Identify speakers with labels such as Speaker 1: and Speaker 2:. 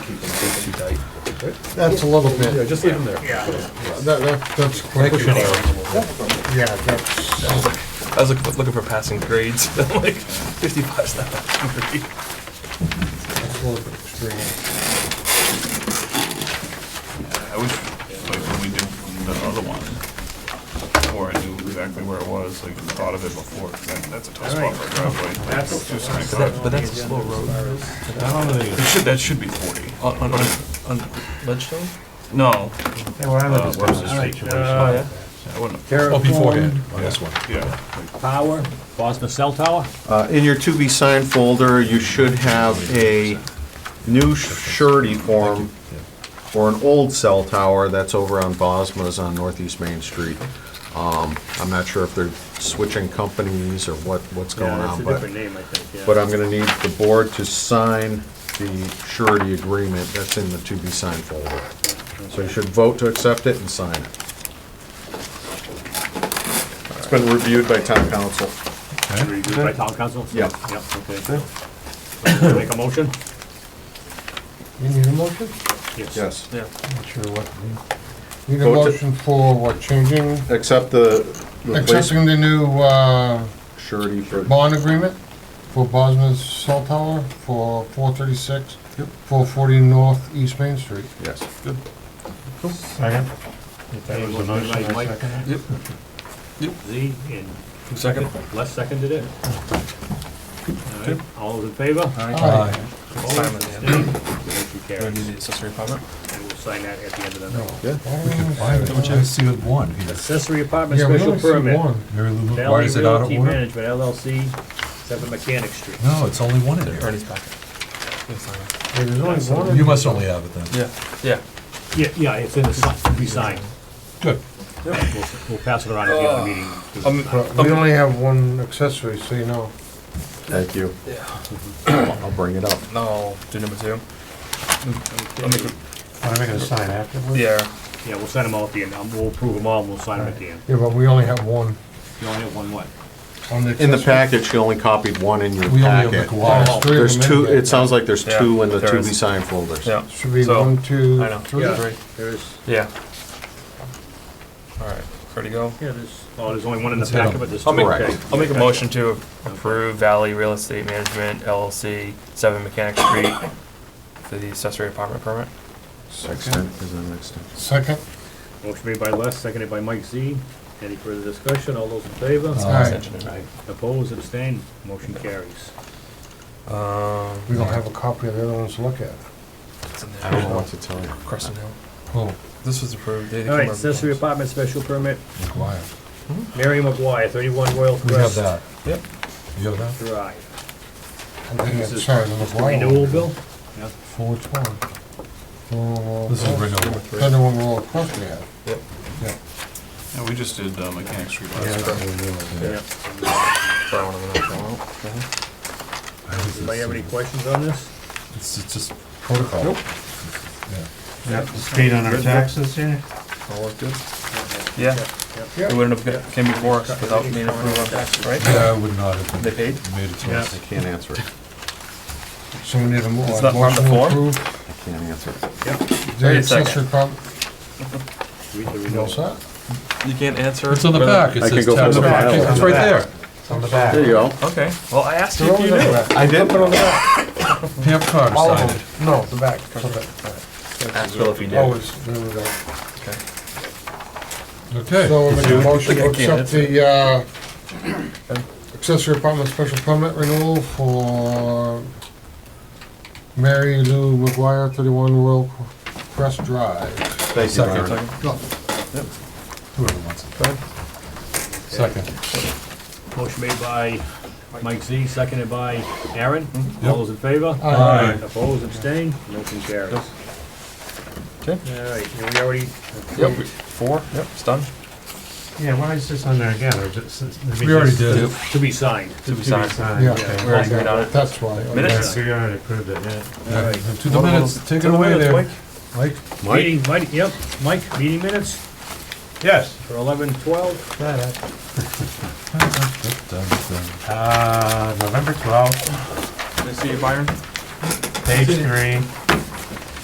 Speaker 1: too tight.
Speaker 2: That's a little
Speaker 1: Yeah,
Speaker 2: bit,
Speaker 1: just leave them there.
Speaker 2: that, that, that's quite a Yeah, that's,
Speaker 1: I was looking for, looking for passing grades, like fifty-five is not that great.
Speaker 2: that's a little bit extreme.
Speaker 3: I wish, like, when we did the other one, or I knew exactly where it was, like, thought of it before, 'cause that, that's a tough spot for a driveway. That's.
Speaker 1: But that- But that's a slow road.
Speaker 3: I don't think. It should, that should be forty.
Speaker 1: On, on, on, on Ledgestone?
Speaker 3: No,
Speaker 4: Yeah, where I live
Speaker 3: Uh,
Speaker 4: is
Speaker 3: where's the
Speaker 4: all right,
Speaker 3: situation?
Speaker 4: uh,
Speaker 3: I wouldn't,
Speaker 4: Terra
Speaker 5: Oh, beforehand,
Speaker 4: Form,
Speaker 5: on this one.
Speaker 3: yeah.
Speaker 4: Power, Boston Cell Tower,
Speaker 6: Uh, In your to be signed folder, you should have a new surety form for an old cell tower that's over on Bosma's on Northeast Main Street. Um, I'm not sure if they're switching companies or what, what's going
Speaker 4: yeah, it's
Speaker 6: on,
Speaker 4: a
Speaker 6: but,
Speaker 4: different name, I think,
Speaker 6: but
Speaker 4: yeah.
Speaker 6: I'm gonna need the board to sign the surety agreement that's in the to be signed folder. So you should vote to accept it and sign it. It's been reviewed by town council.
Speaker 4: It's Reviewed by town council?
Speaker 6: Yeah.
Speaker 4: Yep, okay. So, Make a motion?
Speaker 2: You need a motion?
Speaker 6: Yes.
Speaker 1: Yeah.
Speaker 2: Not sure what. Need a
Speaker 6: Vote to-
Speaker 2: motion for what, changing,
Speaker 6: Accept the replacement
Speaker 2: accepting the new, uh,
Speaker 6: surety for,
Speaker 2: bond agreement for Bosma's cell tower for four thirty-six, four forty North East Main Street.
Speaker 6: yes.
Speaker 5: Second. That was a motion, I
Speaker 4: Mike.
Speaker 5: second it.
Speaker 4: Z, and
Speaker 1: Who seconded?
Speaker 4: Les seconded it. All right, All those in favor?
Speaker 2: Aye.
Speaker 4: Opposed?
Speaker 1: Simon, yeah.
Speaker 4: Abstained? Motion
Speaker 1: Do I
Speaker 4: carries.
Speaker 1: need the accessory apartment?
Speaker 4: And we'll sign that at the end of the night.
Speaker 5: Don't you see it one? here?
Speaker 4: Accessory apartment
Speaker 2: Yeah, we
Speaker 4: special
Speaker 2: only see
Speaker 4: permit.
Speaker 2: one.
Speaker 5: Mary Lou,
Speaker 4: Valley
Speaker 5: why is it out of
Speaker 4: Realty
Speaker 5: order?
Speaker 4: Management LLC, seven Mechanic Street.
Speaker 5: No, it's only one in there.
Speaker 1: Ernie's back. Yeah, sign it.
Speaker 2: Yeah, There's only one.
Speaker 5: You must only have it then.
Speaker 1: Yeah, yeah.
Speaker 4: Yeah, yeah, it's in the, sign- we signed.
Speaker 5: Good.
Speaker 4: We'll we'll pass it around at the other meeting.
Speaker 1: Um,
Speaker 2: We only have one accessory, so you know.
Speaker 6: Thank you.
Speaker 1: yeah.
Speaker 6: I'll bring it up.
Speaker 1: No, do number two. I'll make it-
Speaker 2: I'm making a sign afterwards.
Speaker 1: Yeah.
Speaker 4: Yeah, we'll sign them all at the end. Um, We'll approve them all, and we'll sign them at the end.
Speaker 2: Yeah, but we only have one
Speaker 4: You only have one what?
Speaker 2: on the.
Speaker 6: In the
Speaker 2: accessory.
Speaker 6: package, you only copied one in your
Speaker 5: We only have the
Speaker 6: packet.
Speaker 5: koala.
Speaker 4: Oh,
Speaker 2: There's three of
Speaker 6: There's
Speaker 2: them in
Speaker 6: two,
Speaker 2: there.
Speaker 6: it sounds like there's
Speaker 1: Yeah,
Speaker 6: two in the
Speaker 1: there
Speaker 6: to be
Speaker 1: is.
Speaker 6: signed folders.
Speaker 1: Yeah.
Speaker 2: Should be
Speaker 1: So,
Speaker 2: one, two,
Speaker 1: I know.
Speaker 2: three.
Speaker 1: Yeah.
Speaker 4: There is,
Speaker 1: Yeah. All right, ready to go?
Speaker 4: yeah, there's, oh, there's only one in the
Speaker 5: Let's hit 'em.
Speaker 4: packet, but there's two.
Speaker 1: I'll make,
Speaker 6: Correct.
Speaker 4: Okay.
Speaker 1: I'll make a motion to approve Valley Real Estate Management LLC, seven Mechanic Street, for the accessory apartment permit.
Speaker 6: Extent is the next step.
Speaker 2: Second,
Speaker 4: Motion made by Les, seconded by Mike Z. Any further discussion? All those in favor?
Speaker 2: Aye.
Speaker 4: Aye. Opposed, abstained, motion carries.
Speaker 1: Um,
Speaker 2: we don't have a copy of the other ones to look at.
Speaker 1: it's in
Speaker 6: I
Speaker 1: there.
Speaker 6: don't know what to tell you.
Speaker 1: Crescent Hill.
Speaker 2: Oh,
Speaker 1: This was approved.
Speaker 4: All right, accessory apartment special permit,
Speaker 5: Quiet.
Speaker 4: Mary McGuire, 31 Royal
Speaker 5: We have
Speaker 4: Crest
Speaker 5: that.
Speaker 1: Yep.
Speaker 5: You have that?
Speaker 4: Drive.
Speaker 2: I think
Speaker 4: This
Speaker 2: it's,
Speaker 4: is
Speaker 2: sorry, the
Speaker 4: Renewal
Speaker 2: McGuire one.
Speaker 4: bill?
Speaker 2: For which one? For-
Speaker 5: This is renewal.
Speaker 2: That's the one we're all across we have.
Speaker 1: Yep.
Speaker 2: Yeah.
Speaker 3: Yeah, we just did uh, Mechanic Street last time.
Speaker 2: Yeah.
Speaker 4: Anybody have any questions on this?
Speaker 5: It's, it's just protocol. Nope.
Speaker 4: Paid on our taxes?
Speaker 1: All look good? Yeah, it wouldn't have got- came before us without being approved on tax, right?
Speaker 5: Yeah, I would not have
Speaker 1: They paid?
Speaker 5: made it to
Speaker 4: Yeah.
Speaker 5: us.
Speaker 6: I can't answer it.
Speaker 2: So we need a mo-
Speaker 1: It's
Speaker 2: a
Speaker 1: not part of
Speaker 2: motion
Speaker 1: the form?
Speaker 2: to approve.
Speaker 6: I can't answer it.
Speaker 2: The
Speaker 1: Wait a second.
Speaker 2: accessory prom,
Speaker 4: Read the
Speaker 2: you all
Speaker 4: renewal.
Speaker 2: set?
Speaker 1: You can't answer.
Speaker 5: It's on the back. It
Speaker 6: I can
Speaker 5: says
Speaker 6: go
Speaker 5: tax
Speaker 6: through the
Speaker 5: map.
Speaker 6: file.
Speaker 5: It's right there.
Speaker 2: It's on the back.
Speaker 6: There you go.
Speaker 1: Okay, well, I asked you
Speaker 2: They're
Speaker 1: if
Speaker 2: all
Speaker 1: you
Speaker 2: on the
Speaker 1: knew.
Speaker 2: back.
Speaker 6: I did.
Speaker 2: Put it on the back.
Speaker 5: Pam Carr
Speaker 2: All
Speaker 5: signed
Speaker 2: of
Speaker 5: it.
Speaker 2: them. No, the back. it's on the back. Oh,
Speaker 1: Ask Phil if he did.
Speaker 2: Always, there we go.
Speaker 1: Okay.
Speaker 5: Okay.
Speaker 2: So we're making a motion to
Speaker 1: Look, I can't
Speaker 2: accept the, uh, accessory apartment special permit renewal for Mary Lou McGuire, thirty-one Royal Crest Drive.
Speaker 6: Thank you,
Speaker 5: Second.
Speaker 6: Myron.
Speaker 5: Whoever wants it. Second.
Speaker 4: Motion made by Mike Z, seconded by Aaron.
Speaker 5: Yep.
Speaker 7: Mm-hmm.
Speaker 4: All those in favor?
Speaker 2: Aye.
Speaker 4: Opposed, abstained, motion carries. All
Speaker 1: Okay.
Speaker 4: right, and we already,
Speaker 1: Yep, we- four, yep, it's done.
Speaker 7: Yeah, why is this on there again? Or just- I mean,
Speaker 5: We already
Speaker 7: just-
Speaker 5: did.
Speaker 4: to be signed.
Speaker 1: To be
Speaker 7: to be
Speaker 1: signed.
Speaker 7: signed,
Speaker 2: Yeah.
Speaker 7: okay.
Speaker 1: We already agreed on it.
Speaker 2: That's why. okay.
Speaker 4: Minutes.
Speaker 7: So you already approved it, yeah.
Speaker 5: Yeah, To the
Speaker 1: What about-
Speaker 5: minutes, take
Speaker 1: to
Speaker 5: it
Speaker 1: the
Speaker 5: away
Speaker 1: minutes,
Speaker 5: there.
Speaker 1: Mike.
Speaker 5: Mike?
Speaker 4: Meeting, Mike, yep, Mike, meeting minutes
Speaker 7: Yes.
Speaker 4: for eleven twelve.
Speaker 7: Uh, November twelfth,
Speaker 1: Nice to see you, Byron.
Speaker 7: page three,